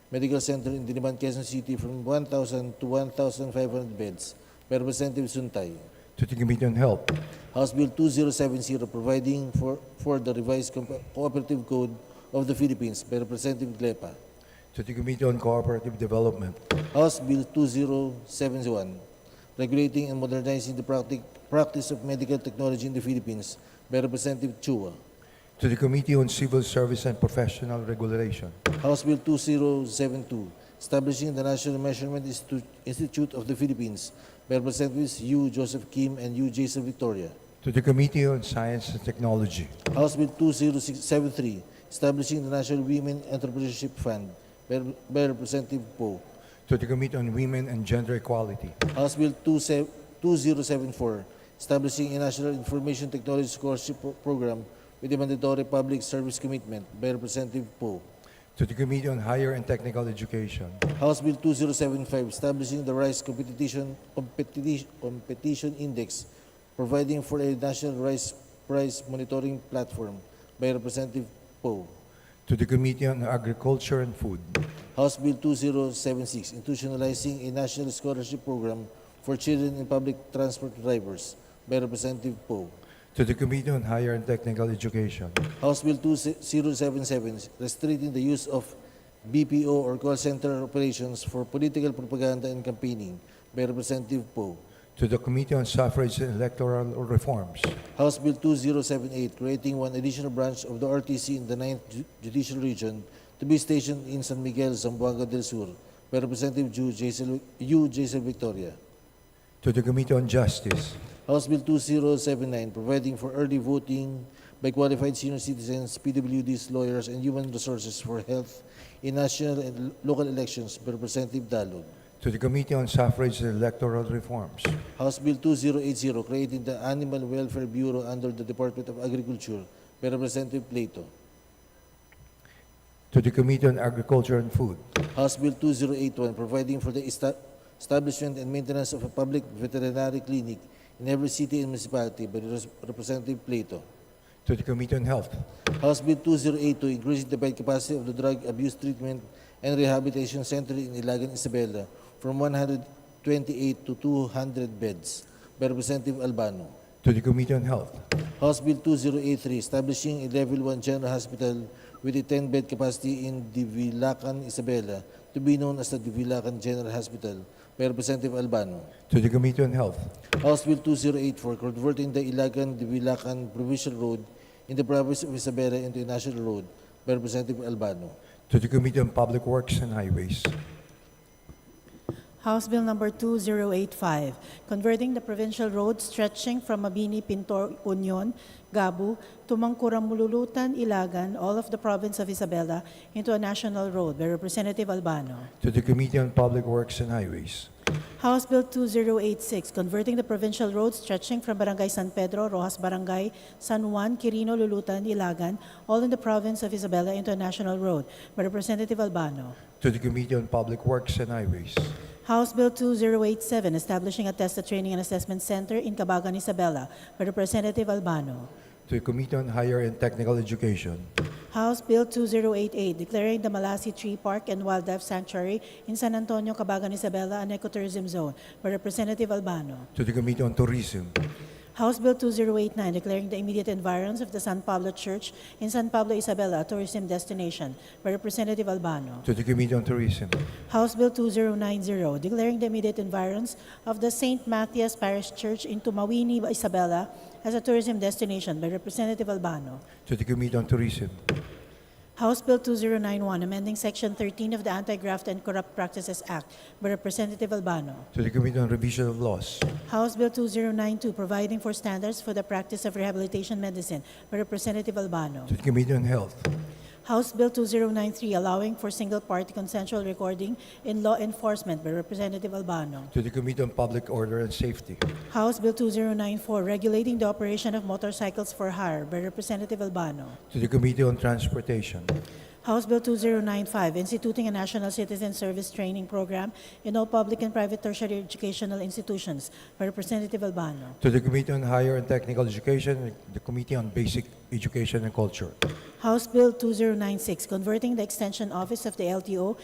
Medical Center in Diliman, Quezon City from 1,000 to 1,500 beds by Representative Suntay. to the Committee on Health, House Bill 2070 providing for, for the revised compa- cooperative code of the Philippines by Representative Glepa. to the Committee on Cooperative Development, House Bill 2071 regulating and modernizing the practic- practice of medical technology in the Philippines by Representative Chua. to the Committee on Civil Service and Professional Regulation, House Bill 2072 establishing the National Measurement Institu- Institute of the Philippines by Representatives U. Joseph Kim and U. Jason Victoria. to the Committee on Science and Technology, House Bill 2073, establishing the National Women Entrepreneurship Fund by, by Representative Poe. to the Committee on Women and Gender Equality, House Bill 27- 2074, establishing a National Information Technology Scholarship Pro- Program with a mandatory public service commitment by Representative Poe. to the Committee on Higher and Technical Education, House Bill 2075, establishing the Rice Competition, Competition, Competition Index, providing for a national rice price monitoring platform by Representative Poe. to the Committee on Agriculture and Food, House Bill 2076, institutionalizing a national scholarship program for children in public transport drivers by Representative Poe. to the Committee on Higher and Technical Education, House Bill 2077, restricting the use of BPO or call center operations for political propaganda and campaigning by Representative Poe. to the Committee on Suffrage and Electoral Reforms, House Bill 2078, creating one additional branch of the RTC in the 9th Ju- Judicial Region to be stationed in San Miguel, Zamboanga del Sur by Representative Ju Jaisal- U. Jason Victoria. to the Committee on Justice, House Bill 2079, providing for early voting by qualified senior citizens, PWDs, lawyers, and human resources for health in national and lo- local elections by Representative Dalog. to the Committee on Suffrage and Electoral Reforms, House Bill 2080, creating the Animal Welfare Bureau under the Department of Agriculture by Representative Plato. to the Committee on Agriculture and Food, House Bill 2081, providing for the esta- establishment and maintenance of a public veterinary clinic in every city and municipality by Res- Representative Plato. to the Committee on Health, House Bill 208 to increase the bed capacity of the Drug Abuse Treatment and Rehabilitation Center in Ilagan, Isabela from 128 to 200 beds by Representative Albano. to the Committee on Health, House Bill 2083 establishing a Level 1 General Hospital with a 10-bed capacity in Divilacan, Isabela to be known as the Divilacan General Hospital by Representative Albano. to the Committee on Health, House Bill 208 for converting the Ilagan Divilacan Provincial Road in the province of Isabela into a national road by Representative Albano. to the Committee on Public Works and Highways, House Bill Number 2085, converting the provincial road stretching from Mabini, Pintor, Union, Gabu to Mangkuram, Mululutan, Ilagan, all of the province of Isabela, into a national road by Representative Albano. to the Committee on Public Works and Highways, House Bill 2086, converting the provincial road stretching from Barangay San Pedro, Rojas Barangay, San Juan, Quirino, Lulutan, Ilagan, all in the province of Isabela, into a national road by Representative Albano. to the Committee on Public Works and Highways, House Bill 2087, establishing a TESTA Training and Assessment Center in Cabagan, Isabela, by Representative Albano. to the Committee on Higher and Technical Education, House Bill 2088, declaring the Malasi Tree Park and Wildlife Sanctuary in San Antonio, Cabagan, Isabela, an ecotourism zone, by Representative Albano. to the Committee on Tourism, House Bill 2089, declaring the immediate environs of the San Pablo Church in San Pablo, Isabela, a tourism destination, by Representative Albano. to the Committee on Tourism, House Bill 2090, declaring the immediate environs of the St. Matthias Parish Church in Tumawini, Isabela as a tourism destination by Representative Albano. to the Committee on Tourism, House Bill 2091, amending Section 13 of the Anti-Graft and Corrupt Practices Act by Representative Albano. to the Committee on Revision of Laws, House Bill 2092, providing for standards for the practice of rehabilitation medicine by Representative Albano. to the Committee on Health, House Bill 2093, allowing for single-party consensual recording in law enforcement by Representative Albano. to the Committee on Public Order and Safety, House Bill 2094, regulating the operation of motorcycles for hire by Representative Albano. to the Committee on Transportation, House Bill 2095, instituting a national citizen service training program in all public and private tertiary educational institutions by Representative Albano. to the Committee on Higher and Technical Education, and the Committee on Basic Education and Culture, House Bill 2096, converting the Extension Office of the LTO